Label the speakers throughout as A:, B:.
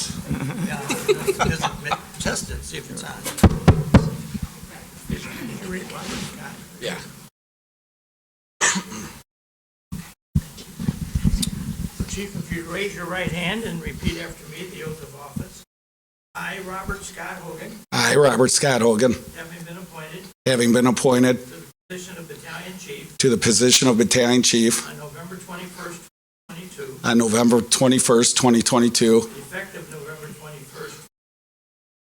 A: Yeah, just ma- Test it, see if it's on. You read what we've got.
B: Yeah.
A: Chief, if you'd raise your right hand and repeat after me the oath of office. I, Robert Scott Hogan,
B: I, Robert Scott Hogan,
A: having been appointed
B: having been appointed
A: to the position of battalion chief
B: to the position of Battalion Chief
A: on November 21st, 22,
B: on November 21st, 2022,
A: effective November 21st,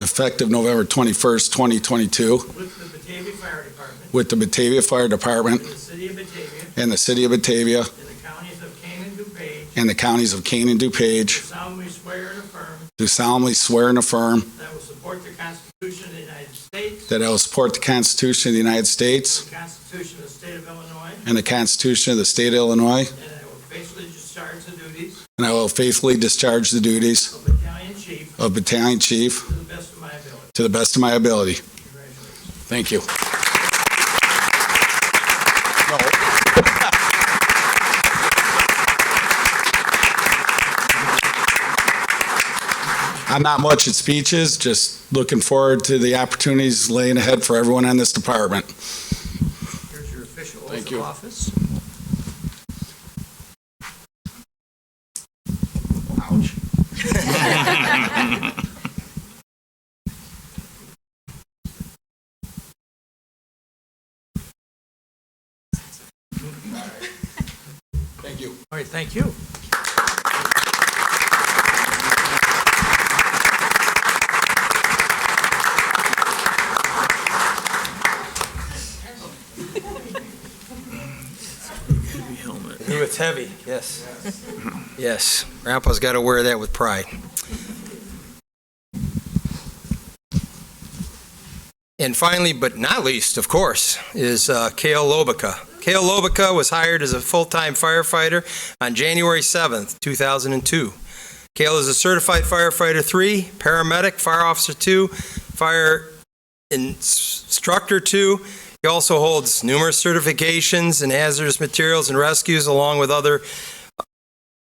B: effective November 21st, 2022,
A: with the Batavia Fire Department
B: with the Batavia Fire Department
A: in the city of Batavia,
B: and the City of Batavia
A: in the counties of Kane and DuPage,
B: and the counties of Kane and
A: do
B: DuPage,
A: solemnly swear and affirm
B: do solemnly swear and affirm
A: that I will support the Constitution of the United States,
B: that I will support the Constitution of the United States
A: the Constitution of the State of Illinois,
B: and the Constitution of the State of Illinois,
A: and I will faithfully discharge the duties
B: and I will faithfully discharge the duties
A: of battalion chief
B: of Battalion Chief
A: to the best of my ability.
B: to the best of my ability.
A: Congratulations.
B: Thank you. I'm not much at speeches, just looking forward to the opportunities laying ahead for everyone in this department.
A: Here's your official
B: Thank
A: oath of
B: you.
A: office.
B: Thank you.
A: All right, thank you.
C: Ooh, it's heavy, yes. Yes, Grandpa's got to wear that with pride. And finally, but not least, of course, is uh, Cale Lobica. Cale Lobica was hired as a full-time firefighter on January 7th, 2002. Cale is a certified firefighter three, paramedic, fire officer two, fire instructor two, he also holds numerous certifications in hazardous materials and rescues, along with other,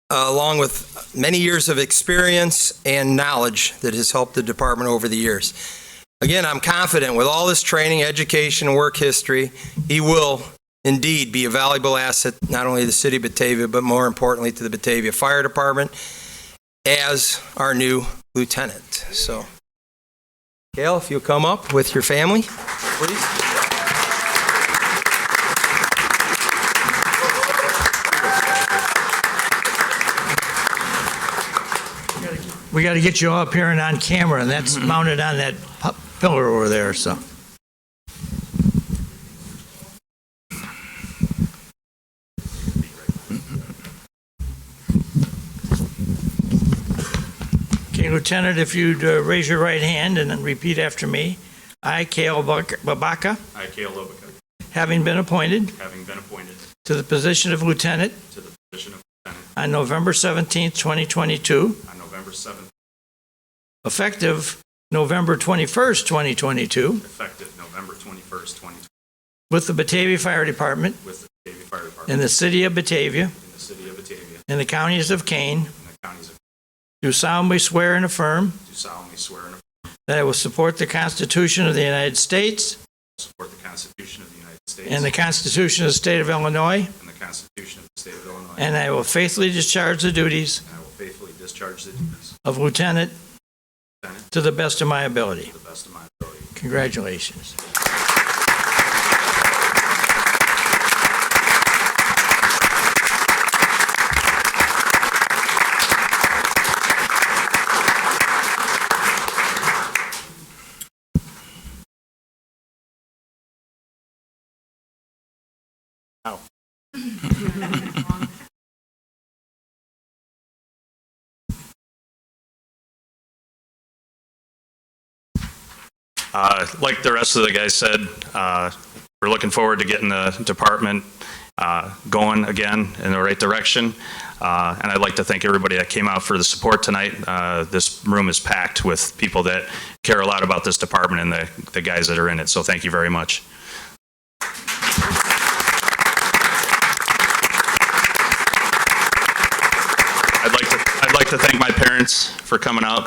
C: uh, along with many years of experience and knowledge that has helped the department over the years. Again, I'm confident with all this training, education, and work history, he will indeed be a valuable asset, not only to the city of Batavia, but more importantly to the Batavia Fire Department as our new lieutenant. So, Gail, if you'll come up with your family, please.
A: We got to get you all up here and on camera, and that's mounted on that pu- pillar over there, so. Okay, Lieutenant, if you'd uh, raise your right hand and then repeat after me. I, Cale Buck- Babaka,
D: I, Cale Lobica,
A: having been appointed
D: having been appointed
A: to the position of lieutenant
D: to the position of lieutenant
A: on November 17, 2022,
D: on November 7th,
A: effective November 21st, 2022,
D: effective November 21st, 2020,
A: with the Batavia Fire Department
D: with the Batavia Fire Department
A: in the City of Batavia
D: in the city of Batavia
A: and the counties of Kane,
D: and the counties of,
A: do solemnly swear and affirm
D: do solemnly swear and affirm
A: that I will support the Constitution of the United States
D: to support the Constitution of the United States
A: and the Constitution of the State of Illinois,
D: and the Constitution of the State of Illinois,
A: and I will faithfully discharge the duties
D: and I will faithfully discharge the duties
A: of lieutenant
D: of lieutenant
A: to the best of my ability.
D: to the best of my ability.
A: Congratulations.
D: Uh, Like the rest of the guys said, uh, we're looking forward to getting the department uh, going again in the right direction. Uh, And I'd like to thank everybody that came out for the support tonight. Uh, This room is packed with people that care a lot about this department and the the guys that are in it, so thank you very much. I'd like to, I'd like to to thank my parents for coming out